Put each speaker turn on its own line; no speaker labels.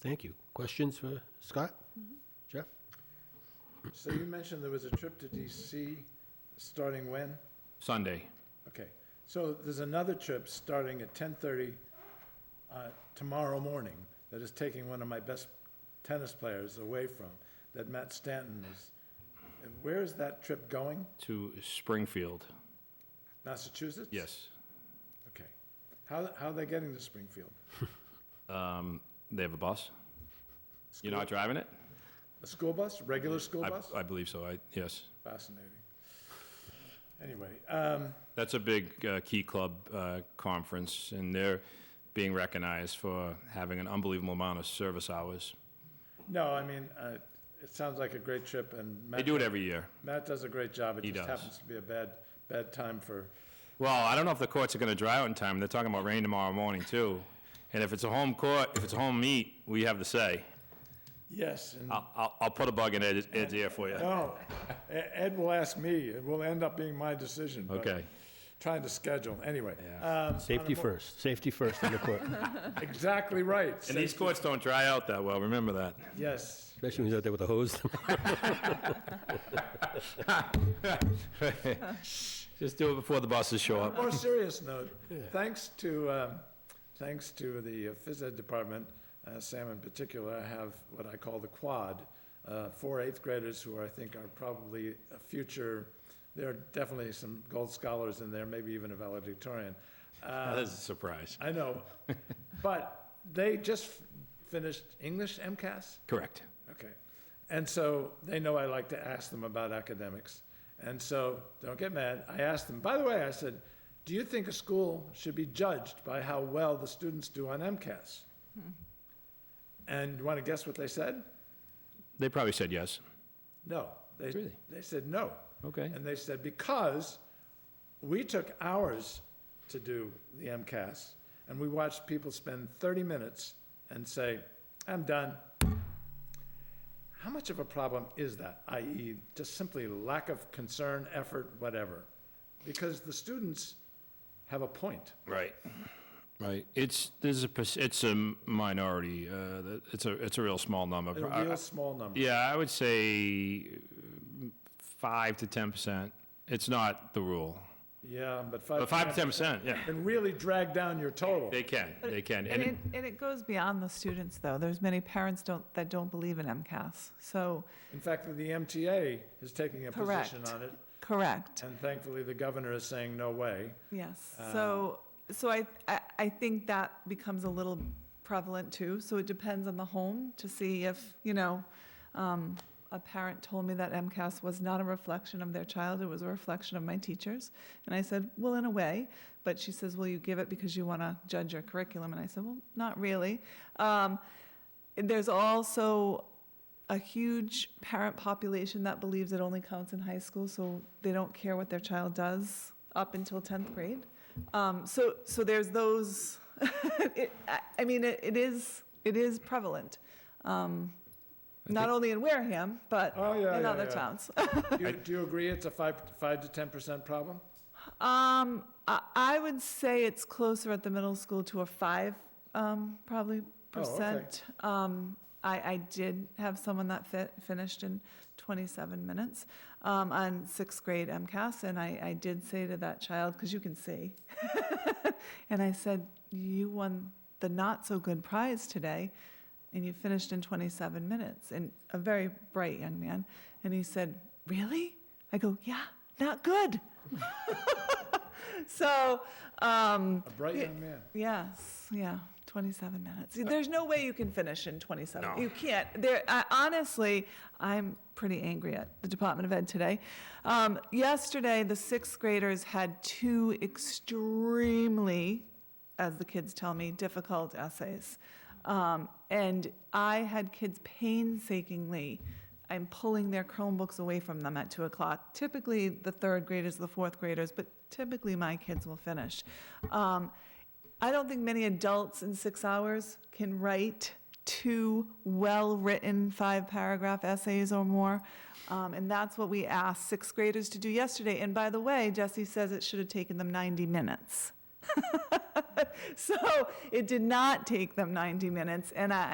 Thank you. Questions for Scott? Jeff?
So you mentioned there was a trip to DC, starting when?
Sunday.
Okay, so there's another trip starting at ten-thirty, uh, tomorrow morning, that is taking one of my best tennis players away from, that Matt Stanton is. and Where is that trip going?
to Springfield.
Massachusetts?
Yes.
Okay. How, how are they getting to Springfield?
Um, They have a bus. You're not driving it?
A school bus, regular school
I-
bus?
I believe so, I, yes.
Fascinating. Anyway, um,
That's a big uh, Key Club uh, conference, and they're being recognized for having an unbelievable amount of service hours.
no, I mean, uh, it sounds like a great trip and.
They do it every year.
Matt does a great job. It
He
just
does.
happens to be a bad, bad time for,
Well, I don't know if the courts are going to dry out in time. They're talking about rain tomorrow morning, too. And if it's a home court, if it's a home meet, we have the say.
yes, and,
I'll- I'll, I'll put a bug in Ed's Ed's ear for you.
no, E- Ed will ask me. It will end up being my decision. but
Okay.
Trying to schedule, anyway. Um,
Safety first, safety first on the court,
Exactly right.
And these courts don't dry out that well, remember that.
Yes.
especially when he's out there with a hose.
Just do it before the buses show up.
More serious note, thanks to, um, thanks to the uh, phys ed department, uh, Sam in particular, I have what I call the quad, uh, four eighth graders who I think are probably a future, there are definitely some gold scholars in there, maybe even a valedictorian. Uh,
That is a surprise.
I know, but they just f- finished English MCAS?
Correct.
Okay. And so they know I like to ask them about academics. And so don't get mad. I asked them, by the way, I said, do you think a school should be judged by how well the students do on MCAS? And you want to guess what they said?
They probably said yes.
No. They,
Really?
they said no.
Okay.
And they said, because we took hours to do the MCAS, and we watched people spend 30 minutes and say, I'm done. How much of a problem is that, i.e., just simply lack of concern, effort, whatever? Because the students have a point.
Right. Right. It's, there's a, perc- it's a minority, uh, that- it's a, it's a real small number.
A
I- I-
real small number.
Yeah, I would say mm, five to 10%. It's not the rule.
Yeah, but
But
five.
five to 10%, yeah.
Can really drag down your total.
They can, they can.
And
And
it,
it-
and it goes beyond the students, though. There's many parents don't, that don't believe in MCAS. So,
In fact, the MTA is taking a position
Correct.
on it,
correct,
and thankfully, the governor is saying, no way.
yes. So, so I, I, I think that becomes a little prevalent, too. So it depends on the home to see if, you know, um, a parent told me that MCAS was not a reflection of their child, it was a reflection of my teachers. And I said, well, in a way, but she says, well, you give it because you want to judge your curriculum. And I said, well, not really. Um, there's also a huge parent population that believes it only counts in high school, so they don't care what their child does up until 10th grade. Um, so, so there's those, it, I- I mean, it, it is, it is prevalent. Um, not only in Wareham, but
Oh, yeah,
in
yeah,
other
yeah.
towns.
Do you, do you agree it's a five, five to ten percent problem?
Um, I, I would say it's closer at the middle school to a five, um, probably
Oh, okay.
percent. Um, I, I did have someone that fit, finished in twenty-seven minutes, um, on sixth grade MCAS, and I, I did say to that child, because you can see, and I said, you won the not-so-good prize today, and you finished in twenty-seven minutes, and a very bright young man, and he said, really? I go, yeah, not good. So, um,
A bright
Yeah.
young man.
yes, yeah, 27 minutes. There's no way you can finish in 27.
No.
You can't. There, I, honestly, I'm pretty angry at the Department of Ed today. Um, yesterday, the sixth graders had two extremely, as the kids tell me, difficult essays. Um, and I had kids painstakingly I'm pulling their Chromebooks away from them at two o'clock. Typically, the third graders, the fourth graders, but typically my kids will finish. Um, I don't think many adults in six hours can write two well-written five-paragraph essays or more. Um, and that's what we asked sixth graders to do yesterday. And by the way, Jesse says it should have taken them 90 minutes. So it did not take them 90 minutes, and I,